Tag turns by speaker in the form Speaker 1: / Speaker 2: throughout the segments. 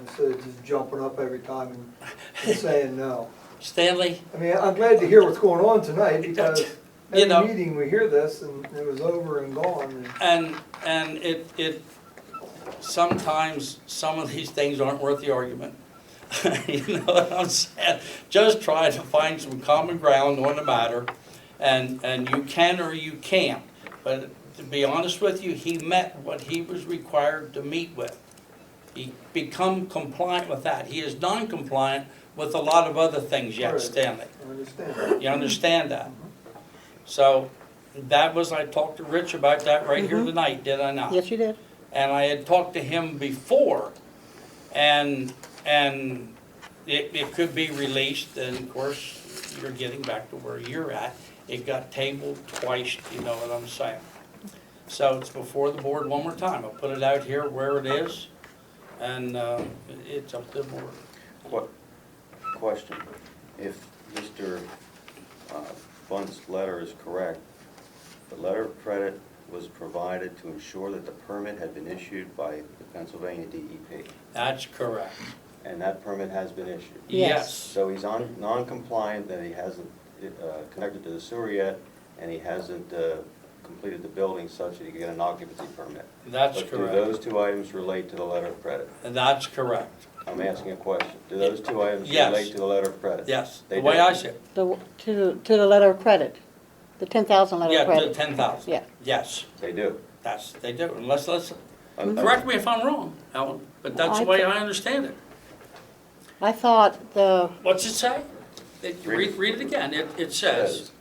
Speaker 1: instead of just jumping up every time and- and saying no.
Speaker 2: Stanley,
Speaker 1: I mean, I'm glad to hear what's going on tonight because
Speaker 2: You know.
Speaker 1: every meeting we hear this and it was over and gone and.
Speaker 2: and, and it, it, sometimes some of these things aren't worth the argument. You know what I'm saying? Just try to find some common ground on the matter, and, and you can or you can't. But to be honest with you, he met what he was required to meet with. He become compliant with that. He is non-compliant with a lot of other things yet,
Speaker 1: Right.
Speaker 2: Stanley.
Speaker 1: I understand.
Speaker 2: You understand that? So that was, I talked to Rich about that right here tonight, did I not?
Speaker 3: Yes, you did.
Speaker 2: And I had talked to him before and, and it, it could be released and of course, you're getting back to where you're at. It got tabled twice, you know what I'm saying? So it's before the board one more time. I'll put it out here where it is and, uh, it's up to the board.
Speaker 4: Qu- Question, if Mr. uh, Bunt's letter is correct, the letter of credit was provided to ensure that the permit had been issued by the Pennsylvania DEP,
Speaker 2: That's correct.
Speaker 4: and that permit has been issued.
Speaker 2: Yes.
Speaker 4: So he's on, non-compliant, that he hasn't uh, connected to the sewer yet, and he hasn't uh, completed the building such that he can get an occupancy permit.
Speaker 2: That's
Speaker 4: But do
Speaker 2: correct.
Speaker 4: those two items relate to the letter of credit?
Speaker 2: That's correct.
Speaker 4: I'm asking a question. Do those two items
Speaker 2: Yes.
Speaker 4: relate to the letter of credit?
Speaker 2: Yes, the
Speaker 4: They
Speaker 2: way
Speaker 4: do.
Speaker 2: I see it.
Speaker 3: The, to, the- to the letter of credit, the ten thousand letter
Speaker 2: Yeah,
Speaker 3: of
Speaker 2: the
Speaker 3: credit.
Speaker 2: ten thousand.
Speaker 3: Yeah. Mm-hmm.
Speaker 2: Yes,
Speaker 4: They do.
Speaker 2: that's, they do, unless, let's,
Speaker 4: Un-
Speaker 2: correct me if I'm wrong, Ellen, but that's the
Speaker 3: I
Speaker 2: way
Speaker 3: think-
Speaker 2: I understand it.
Speaker 3: I thought the,
Speaker 2: What's it say? It-
Speaker 4: Read
Speaker 2: Read,
Speaker 4: it.
Speaker 2: read it again, it, it says,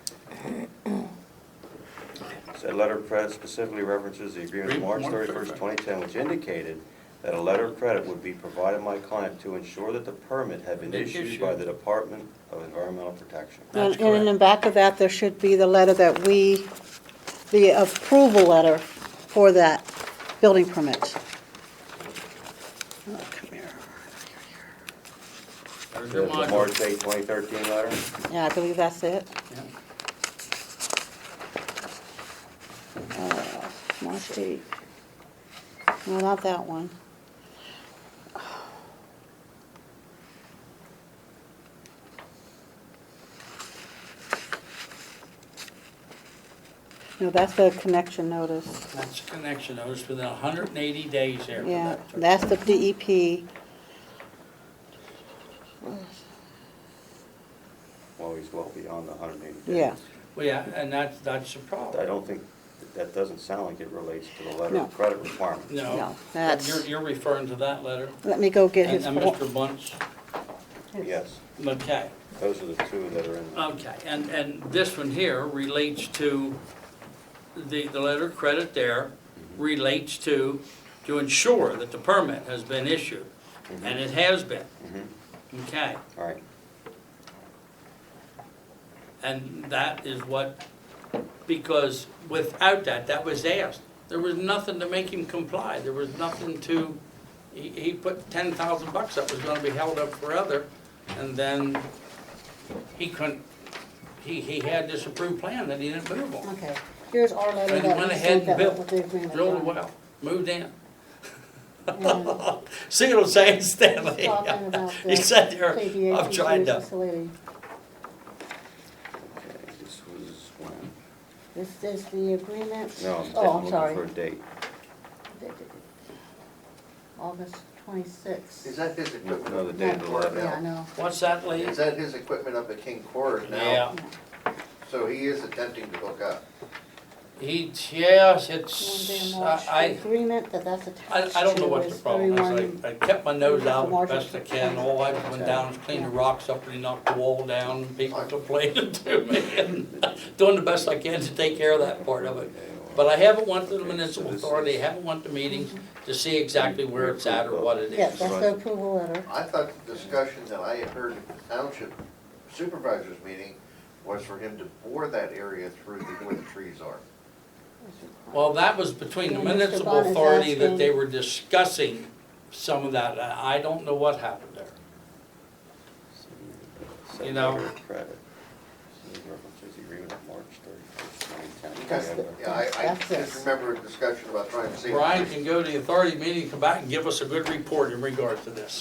Speaker 4: Said letter of credit specifically references the agreement of March
Speaker 2: Read more,
Speaker 4: thirty-first,
Speaker 2: sorry.
Speaker 4: twenty ten, which indicated that a letter of credit would be provided my client to ensure that the permit had been
Speaker 2: Been
Speaker 4: issued
Speaker 2: issued.
Speaker 4: by the Department of Environmental Protection.
Speaker 2: That's
Speaker 3: and and in
Speaker 2: correct.
Speaker 3: the back of that, there should be the letter that we, the approval letter for that building permit. Oh, come here.
Speaker 2: there's
Speaker 4: The
Speaker 2: your
Speaker 4: the
Speaker 2: module.
Speaker 4: March eighth, twenty thirteen letter?
Speaker 3: Yeah, I believe that's it.
Speaker 2: Yeah.
Speaker 3: Uh, March eighth. No, not that one. No, that's the connection notice.
Speaker 2: That's a connection, I was within hundred and eighty days there.
Speaker 3: Yeah, that's the E DEP.
Speaker 4: Well, he's well beyond the hundred and eighty days.
Speaker 3: Yeah,
Speaker 2: Well, yeah, and that's, that's the
Speaker 4: I
Speaker 2: problem.
Speaker 4: don't think, that doesn't sound like it relates to the letter
Speaker 3: No.
Speaker 4: of credit requirement.
Speaker 2: No,
Speaker 3: No,
Speaker 2: but you're,
Speaker 3: that's-
Speaker 2: you're referring to that letter,
Speaker 3: let me go get
Speaker 2: and
Speaker 3: his.
Speaker 2: and
Speaker 3: form.
Speaker 2: Mr. Bunce,
Speaker 4: Yes,
Speaker 2: okay.
Speaker 4: those are the two that are in. there.
Speaker 2: Okay, and, and this one here relates to, the, the letter of credit there relates to, to ensure that the permit has been issued, and it has been.
Speaker 4: Mhm.
Speaker 2: Okay,
Speaker 4: All right,
Speaker 2: and that is what, because without that, that was asked. There was nothing to make him comply, there was nothing to, he, he put ten thousand bucks that was gonna be held up forever, and then he couldn't, he, he had this approved plan that he didn't move on.
Speaker 3: Okay, here's our letter
Speaker 2: And he
Speaker 3: that
Speaker 2: went
Speaker 3: we
Speaker 2: ahead
Speaker 3: sent
Speaker 2: and
Speaker 3: that
Speaker 2: built,
Speaker 3: with the agreement.
Speaker 2: drilled a
Speaker 3: on.
Speaker 2: well, moved in.
Speaker 3: And
Speaker 2: See what I'm saying,
Speaker 3: he's
Speaker 2: Stanley?
Speaker 3: talking about
Speaker 2: He
Speaker 3: the
Speaker 2: sat there,
Speaker 3: KVH
Speaker 2: I'm trying
Speaker 3: research
Speaker 2: to,
Speaker 3: facility.
Speaker 4: okay, this was when?
Speaker 3: This is the agreement?
Speaker 4: No, I'm
Speaker 3: Oh, I'm
Speaker 4: looking for a
Speaker 3: sorry.
Speaker 4: date.
Speaker 3: August twenty-sixth.
Speaker 5: Is that his
Speaker 4: No,
Speaker 5: equipment?
Speaker 4: no, the
Speaker 5: up-
Speaker 4: date of the letter.
Speaker 3: Yeah, I know.
Speaker 2: what's that, Lee?
Speaker 5: Is that his equipment up at King Court
Speaker 2: Yeah,
Speaker 5: now? So he is attempting to hook up.
Speaker 2: he, yes,
Speaker 3: And
Speaker 2: it's,
Speaker 3: then watch the
Speaker 2: Uh, I,
Speaker 3: agreement that that's
Speaker 2: I,
Speaker 3: attached to
Speaker 2: I don't know what the
Speaker 3: is
Speaker 2: problem is.
Speaker 3: 31.
Speaker 2: I, I kept my nose out as
Speaker 3: Margin.
Speaker 2: best I can. All I went down was clean the rocks up and knocked the wall down. People complaining to me and doing the best I can to take care of that part of it. But I haven't went to the municipal authority, haven't went to meetings to see exactly where it's at or what it is.
Speaker 3: Mm-hmm. Yes, that's the approval letter.
Speaker 5: I thought the discussion that I had heard at the township supervisors meeting was for him to bore that area through to where the trees are.
Speaker 2: Well, that was between the
Speaker 3: Yeah, Mr.
Speaker 2: municipal
Speaker 3: Bott is
Speaker 2: authority that they
Speaker 3: asking-
Speaker 2: were discussing some of that. I I don't know what happened there. You know.
Speaker 4: Letter of Credit. This references the agreement of March
Speaker 5: Because,
Speaker 4: 31st, 2010.
Speaker 5: yeah, I, I
Speaker 3: That's
Speaker 5: just
Speaker 3: this.
Speaker 5: remember a discussion about trying to see. if
Speaker 2: Brian
Speaker 5: there's-
Speaker 2: can go to the authority meeting, come back and give us a good report in regards to this.